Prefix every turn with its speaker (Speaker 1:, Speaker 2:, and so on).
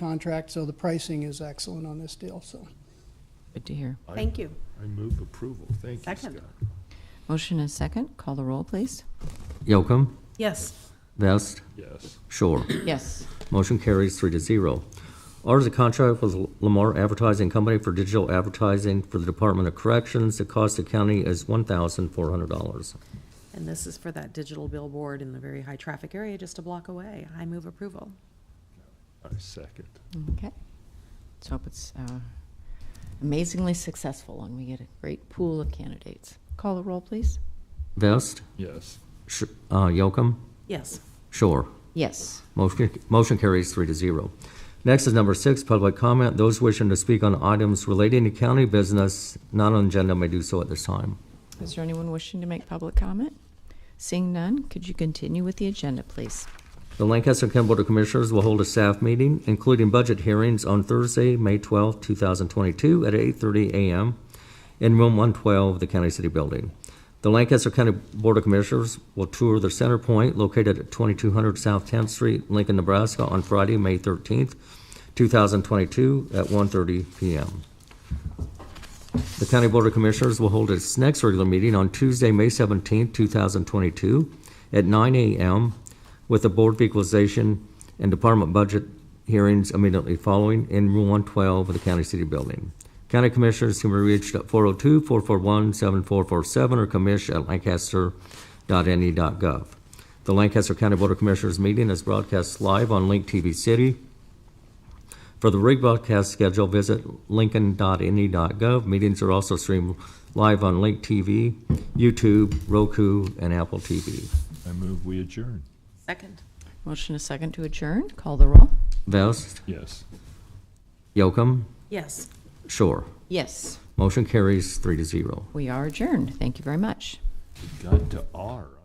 Speaker 1: contract, so the pricing is excellent on this deal, so.
Speaker 2: Good to hear.
Speaker 3: Thank you.
Speaker 4: I move approval. Thank you,
Speaker 3: Second.
Speaker 4: Scott.
Speaker 2: Motion and second. Call the roll, please.
Speaker 5: Yocum,
Speaker 3: Yes.
Speaker 5: Vest,
Speaker 4: Yes.
Speaker 5: Shore.
Speaker 2: Yes.
Speaker 5: Motion carries three to zero. R is a contract with Lamar Advertising Company for digital advertising for the Department of Corrections. The cost to county is one thousand four hundred dollars.
Speaker 3: And this is for that digital billboard in the very high-traffic area just a block away. I move approval.
Speaker 4: I second.
Speaker 2: Okay. Let's hope it's uh, amazingly successful and we get a great pool of candidates. Call the roll, please.
Speaker 5: Vest,
Speaker 4: Yes.
Speaker 5: Sh- uh, Yocum,
Speaker 3: Yes.
Speaker 5: Shore.
Speaker 2: Yes.
Speaker 5: Motion motion carries three to zero. Next is number six, public comment. Those wishing to speak on items relating to county business not on agenda may do so at this time.
Speaker 2: Is there anyone wishing to make public comment? Seeing none, could you continue with the agenda, please?
Speaker 5: The Lancaster County Board of Commissioners will hold a staff meeting, including budget hearings, on Thursday, May 12, 2022, at 8:30 a.m. in Room 112 of the County City Building. The Lancaster County Board of Commissioners will tour the Center Point located at 2200 South 10th Street, Lincoln, Nebraska, on Friday, May 13, 2022, at 1:30 p.m. The County Board of Commissioners will hold its next regular meeting on Tuesday, May 17, 2022, at 9 a.m. with the Board of Equalization and Department Budget hearings immediately following in Room 112 of the County City Building. County Commissioners can be reached at 402-441-7447 or commish@lancaster.ne.gov. E The Lancaster County Board of Commissioners meeting is broadcast live on Link TV City. For the rebroadcast schedule, visit lincoln.ne.gov. E Meetings are also streamed live on Link TV, YouTube, Roku, and Apple TV.
Speaker 4: I move we adjourn.
Speaker 3: Second.
Speaker 2: Motion and second to adjourn. Call the roll.
Speaker 5: Vest,
Speaker 4: Yes.
Speaker 5: Yocum,
Speaker 3: Yes.
Speaker 5: Shore.
Speaker 2: Yes.
Speaker 5: Motion carries three to zero.
Speaker 2: We are adjourned. Thank you very much.
Speaker 4: Got to R.